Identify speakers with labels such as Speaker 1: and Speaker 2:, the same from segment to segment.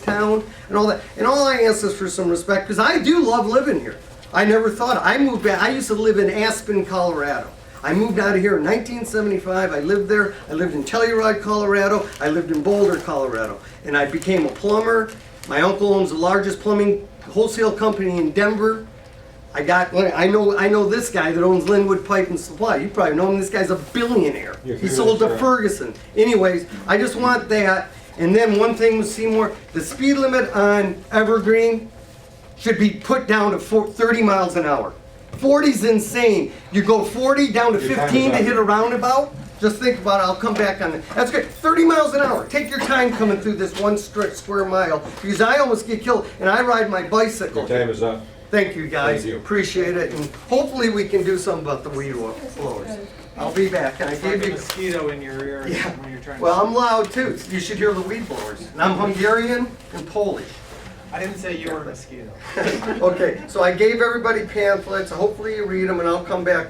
Speaker 1: town and all that. And all I ask is for some respect because I do love living here. I never thought I moved back. I used to live in Aspen, Colorado. I moved out of here in 1975. I lived there. I lived in Telluride, Colorado. I lived in Boulder, Colorado. And I became a plumber. My uncle owns the largest plumbing wholesale company in Denver. I got. I know. I know this guy that owns Linwood Pipe and Supply. You probably know him. This guy's a billionaire.
Speaker 2: Yes,
Speaker 1: he
Speaker 2: he
Speaker 1: sold to
Speaker 2: is, yeah.
Speaker 1: Ferguson. Anyways, I just want that. And then one thing with Seymour, the speed limit on Evergreen should be put down to four- 30 miles an hour. 40's insane. You go 40 down to
Speaker 2: Your time is
Speaker 1: 15 to
Speaker 2: up.
Speaker 1: hit a roundabout. Just think about it. I'll come back on that. That's good. 30 miles an hour. Take your time coming through this one stri- square mile because I almost get killed and I ride my bicycle.
Speaker 2: Your time is up.
Speaker 1: Thank you, guys.
Speaker 2: Thank you.
Speaker 1: Appreciate it, and hopefully we can do something about the weed wa- blowers. I'll be back, and I
Speaker 3: It's like
Speaker 1: gave
Speaker 3: a
Speaker 1: you,
Speaker 3: mosquito in your ear
Speaker 1: Yeah.
Speaker 3: when you're trying to.
Speaker 1: well, I'm loud too. You should hear the weed blowers. And I'm Hungarian and Polish.
Speaker 3: I didn't say you were a mosquito.
Speaker 1: Okay, so I gave everybody pamphlets. Hopefully you read them, and I'll come back,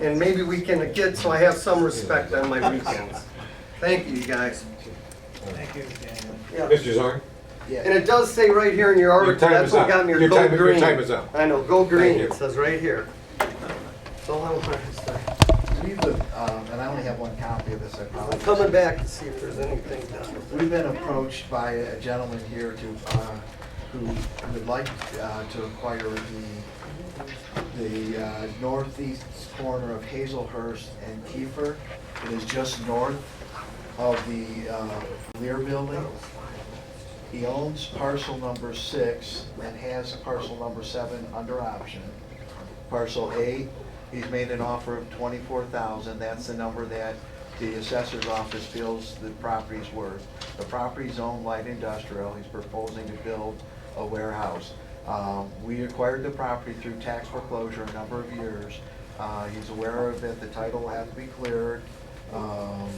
Speaker 1: and maybe we can get, so I have some respect on my weekends. Thank you, you guys.
Speaker 3: Thank you, Daniel.
Speaker 1: Yeah.
Speaker 2: Mr. Zorn?
Speaker 1: And it does say right here in your article,
Speaker 2: time
Speaker 1: that's
Speaker 2: is
Speaker 1: what
Speaker 2: up.
Speaker 1: got me,
Speaker 2: Your
Speaker 1: go
Speaker 2: time- your
Speaker 1: green.
Speaker 2: time is up.
Speaker 1: I know, go green,
Speaker 2: you.
Speaker 1: it says right here. That's all I wanted to say.
Speaker 4: We've, uh, and I only have one copy of this, I
Speaker 1: I'm
Speaker 4: apologize.
Speaker 1: coming back to see if there's anything done.
Speaker 4: We've been approached by a gentleman here to, uh, who would like uh, to acquire the, the uh, northeast corner of Hazelhurst and Kiefer. It is just north of the uh, Lear Building. He owns parcel number six and has parcel number seven under option. Parcel A, he's made an offer of twenty-four thousand, that's the number that the assessor's office feels the property's worth. The property's owned light industrial, he's proposing to build a warehouse. Um, we acquired the property through tax foreclosure a number of years. Uh, he's aware of that the title will have to be cleared. Um,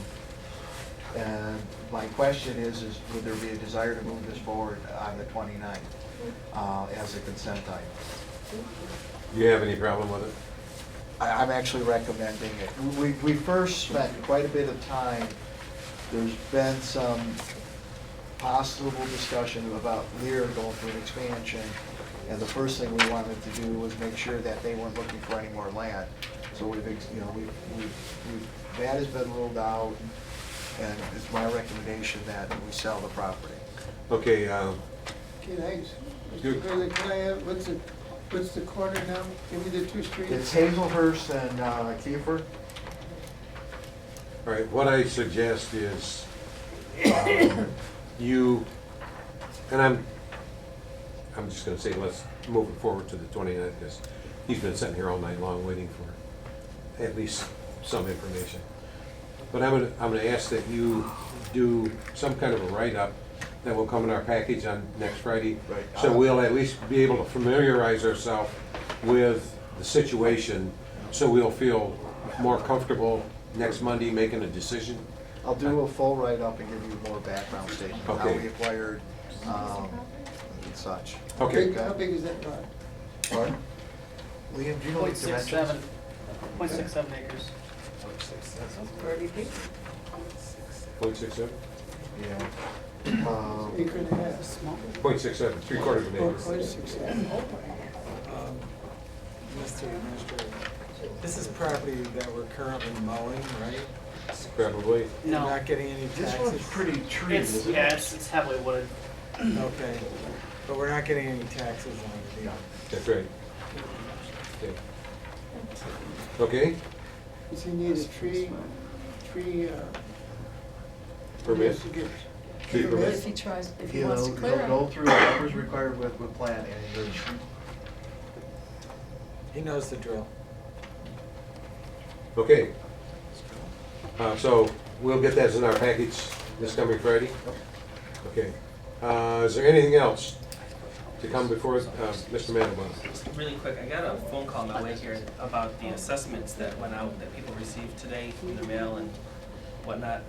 Speaker 4: and my question is, is would there be a desire to move this forward on the 29th uh, as a consent item?
Speaker 2: Do you have any problem with it?
Speaker 4: I- I'm actually recommending it. We, we first spent quite a bit of time, there's been some possible discussion about Lear going through an expansion, and the first thing we wanted to do was make sure that they weren't looking for any more land. So we've, ex- you know, we've, we've, we've- that has been ruled out, and it's my recommendation that we sell the property.
Speaker 2: Okay, um,
Speaker 5: Kid Hayes,
Speaker 2: Good.
Speaker 5: Mr. Gurley, can I have, what's the, what's the corner now? Give me the two streets.
Speaker 4: It's Hazelhurst and uh, Kiefer.
Speaker 2: all right, what I suggest is um, you, and I'm, I'm just gonna say, let's move it forward to the 29th, because he's been sitting here all night long waiting for at least some information. But I'm gonna, I'm gonna ask that you do some kind of a write-up that will come in our package on next Friday.
Speaker 4: Right.
Speaker 2: So we'll at least be able to familiarize ourselves with the situation, so we'll feel more comfortable next Monday making a decision.
Speaker 4: I'll do a full write-up and give you more background statement, how
Speaker 2: Okay.
Speaker 4: we acquired, um, and such.
Speaker 2: Okay,
Speaker 5: Big- How big is that lot?
Speaker 4: Pardon? Liam, do you know the
Speaker 6: Point six seven,
Speaker 4: dimensions?
Speaker 6: point six seven acres.
Speaker 2: point six seven?
Speaker 4: Yeah. Um,
Speaker 5: Acre and a half.
Speaker 2: Point six seven, three quarters of
Speaker 5: Or
Speaker 2: an acre.
Speaker 5: or six, seven.
Speaker 3: Mr. Um, Administrator, this is property that we're currently mowing, right?
Speaker 2: Probably.
Speaker 3: And
Speaker 6: No.
Speaker 3: Not getting any
Speaker 4: This one's
Speaker 3: taxes.
Speaker 4: pretty treated,
Speaker 6: It's,
Speaker 4: isn't
Speaker 6: yeah,
Speaker 4: it?
Speaker 6: it's, it's heavily wooded.
Speaker 3: Okay, but we're not getting any taxes on it.
Speaker 2: That's right. Okay. Okay,
Speaker 5: Does he need a tree, tree, uh? he
Speaker 2: permit?
Speaker 5: has to get-
Speaker 2: Tree permit?
Speaker 7: If he tries, if he
Speaker 4: He'll,
Speaker 7: wants to
Speaker 4: he'll
Speaker 7: clear
Speaker 4: go
Speaker 7: them.
Speaker 4: through whatever's required with, with plan, and
Speaker 3: He knows the drill.
Speaker 2: Okay. Uh, so we'll get that in our package this coming Friday? Okay. Uh, is there anything else to come before, uh, Mr. Mandelbaum?
Speaker 8: Really quick, I got a phone call on my way here about the assessments that went out, that people received today in the mail and whatnot.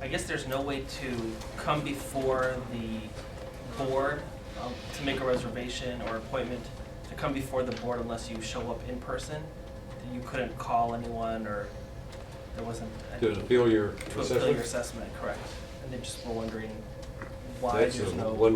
Speaker 8: I guess there's no way to come before the board um, to make a reservation or appointment, to come before the board unless you show up in person. You couldn't call anyone or there wasn't.
Speaker 2: To appeal your
Speaker 8: To appeal your
Speaker 2: assessment?
Speaker 8: assessment, correct. And they just were wondering why
Speaker 2: That's
Speaker 8: there's
Speaker 2: a
Speaker 8: no.
Speaker 2: one